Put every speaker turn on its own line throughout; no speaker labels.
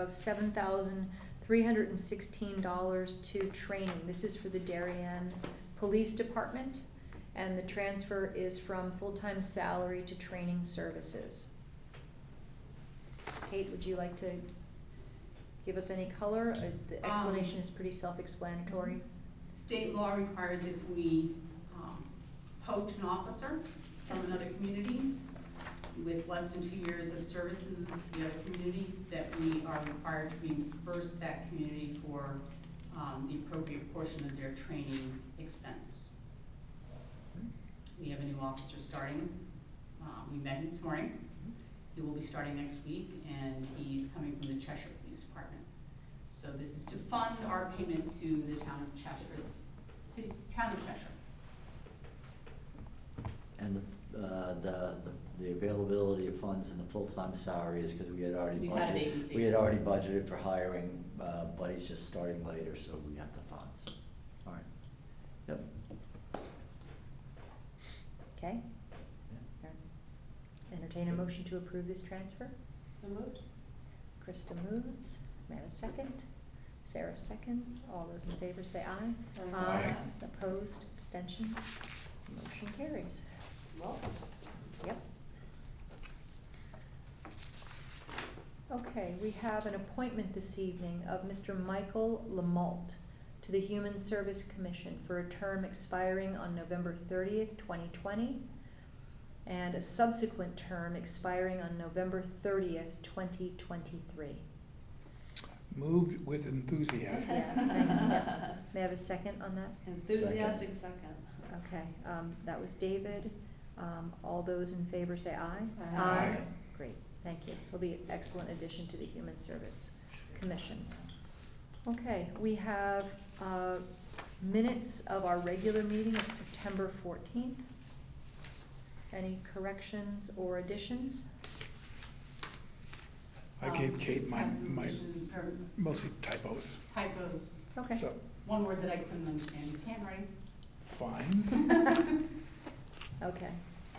of seven thousand three hundred and sixteen dollars to training. This is for the Darien Police Department, and the transfer is from full-time salary to training services. Kate, would you like to give us any color? Uh, The
Um,
explanation is pretty self-explanatory.
State law requires if we um, poach an officer from another community with less than two years of service in the other community, that we are required to reimburse that community for um, the appropriate portion of their training expense. We have a new officer starting. Um, We met him this morning. He will be starting next week, and he's coming from the Cheshire Police Department. So this is to fund our payment to the town of Cheshire, it's city, town of Cheshire.
And the, uh, the, the availability of funds and the full-time salaries, because we had already
We had a
budgeted.
vacancy.
We had already budgeted for hiring, uh, but he's just starting later, so we have the funds. All right. Yep.
Okay? Entertain a motion to approve this transfer?
So moved?
Krista moves. May I have a second? Sarah seconds. All those in favor say aye.
Aye.
Opposed, abstentions? Motion carries.
Welcome.
Yep. Okay, we have an appointment this evening of Mr. Michael Lamalt to the Human Service Commission for a term expiring on November thirtieth, twenty twenty, and a subsequent term expiring on November thirtieth, twenty twenty-three.
Moved with enthusiasm.
Yeah, thanks, yeah. May I have a second on that?
Enthusiastic
second.
Okay, um, that was David. Um, all those in favor say aye.
Aye.
Aye.
Great, thank you. He'll be an excellent addition to the Human Service Commission. Okay, we have, uh, minutes of our regular meeting of September fourteenth. Any corrections or additions?
I
Um,
gave Kate my, my, mostly typos,
Typos,
Okay,
so,
one word that I couldn't understand is handwriting.
fines.
okay.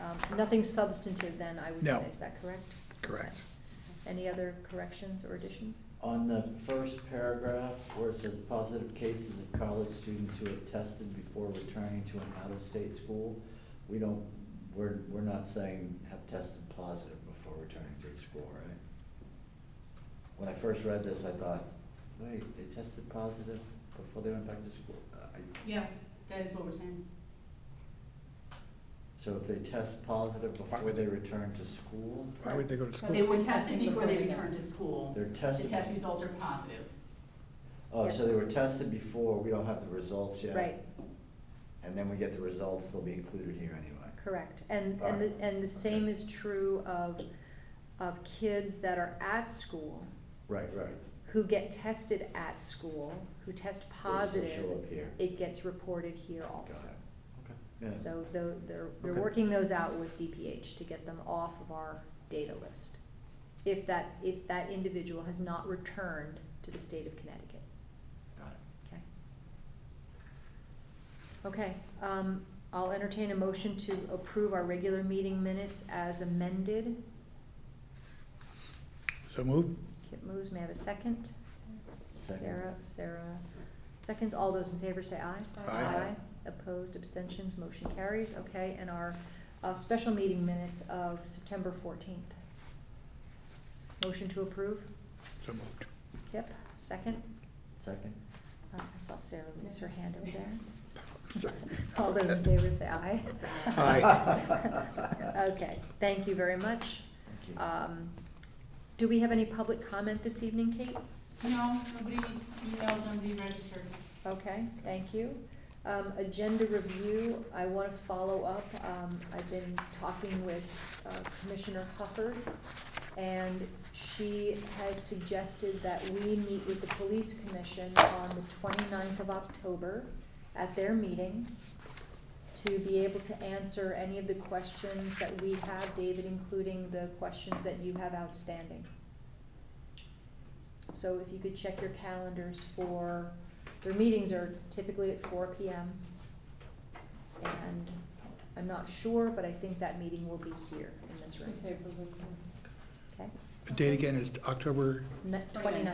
Um, nothing substantive then, I would
No.
say, is that correct?
Correct.
Any other corrections or additions?
On the first paragraph, where it says positive cases of college students who have tested before returning to an out-of-state school, we don't, we're, we're not saying have tested positive before returning to the school, right? When I first read this, I thought, wait, they tested positive before they went back to school? Uh, I-
Yeah, that is what we're saying.
So if they test positive before they return to school,
Why would they go to
They
school?
were tested before they returned to school.
they're
The
tested.
test results are positive.
Oh, so they were tested before, we don't have the results yet?
Right,
And then we get the results, they'll be included here anyway.
correct. And, and, the- and the same is true of, of kids that are at school,
Right, right.
who get tested at school, who test
They still show
positive,
up here.
it gets reported here also.
Got it. Yeah.
So tho- they're, they're
Okay.
working those out with DPH to get them off of our data list. If that, if that individual has not returned to the state of Connecticut.
Got it.
Okay. Okay, um, I'll entertain a motion to approve our regular meeting minutes as amended.
So moved?
Kip moves, may I have a second?
Second.
Sarah, Sarah seconds, all those in favor say aye.
Aye. Aye.
Opposed, abstentions, motion carries, okay, and our, uh, special meeting minutes of September fourteenth. Motion to approve,
So moved.
Kip, second,
Second?
Uh, I saw Sarah lose her hand over there.
Sorry.
All those in favor say aye.
Aye.
Okay, thank you very much.
Thank you.
Um, Do we have any public comment this evening, Kate?
No, nobody emailed, nobody registered.
Okay, thank you. Um, agenda review, I wanna follow up, um, I've been talking with uh, Commissioner Hufford, and she has suggested that we meet with the police commission on the 29th of October at their meeting to be able to answer any of the questions that we have, David, including the questions that you have outstanding. So if you could check your calendars for, their meetings are typically at four P M. And I'm not sure, but I think that meeting will be here in this room. Okay,
date again is October
Ni- 29.